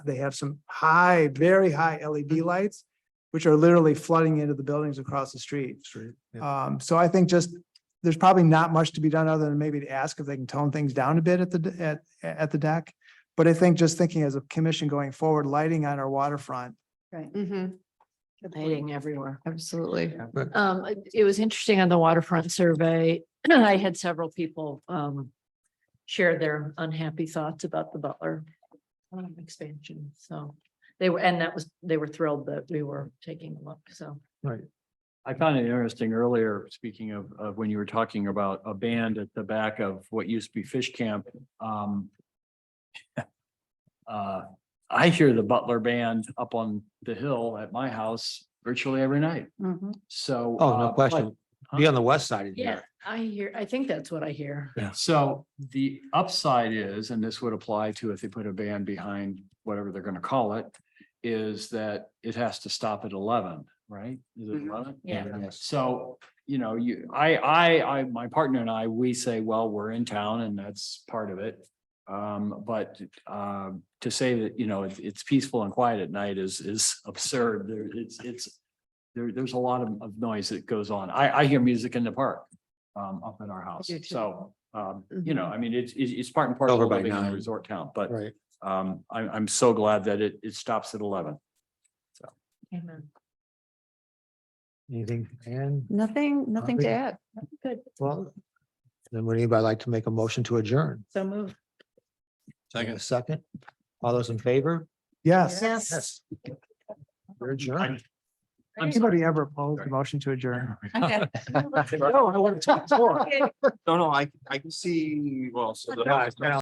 They have some high, very high LED lights, which are literally flooding into the buildings across the street. Street. Um, so I think just, there's probably not much to be done other than maybe to ask if they can tone things down a bit at the, d- at, at the deck. But I think just thinking as a commission going forward, lighting on our waterfront, Right. Lighting everywhere. Absolutely. But- Um, it- it was interesting on the waterfront survey. I had several people um share their unhappy thoughts about the Butler um, expansion. So they were, and that was, they were thrilled that we were taking a look. So I found it interesting earlier, speaking of, of when you were talking about a band at the back of what used to be Fish Camp, um. Uh, I hear the Butler Band up on the hill at my house virtually every night, Mm-hmm. so. Oh, uh, no but- question. Be on the west side of yeah, here. I hear, I think that's what I hear. So the upside is, and this would apply to if they put a band behind whatever they're gonna call it, is that it has to stop at eleven, right? Is it Mhm. eleven? Yeah. So, you know, you, I, I, I, my partner and I, we say, well, we're in town and that's part of it. Um, but, um, to say that, you know, it's, it's peaceful and quiet at night is, is absurd. There, it's, it's. There, there's a lot of, of noise that goes on. I, I hear music in the park, um, up in our house. do too. Mm-hmm. So, um, you know, I mean, it's, it's, it's part and parcel Over of by living in a nine. resort town, but, Right. um, I'm, I'm so glad that it, it stops at eleven. Amen. Anything, and, Nothing, nothing to Nothing. add. Good. well, then would anybody like to make a motion to adjourn? So move. Second. Second. All those in favor? yes. Yes. You're adjourned. I'm sorry. Anybody ever opposed the motion to adjourn? No, I want to talk more. No, no, I, I can see, well, so the.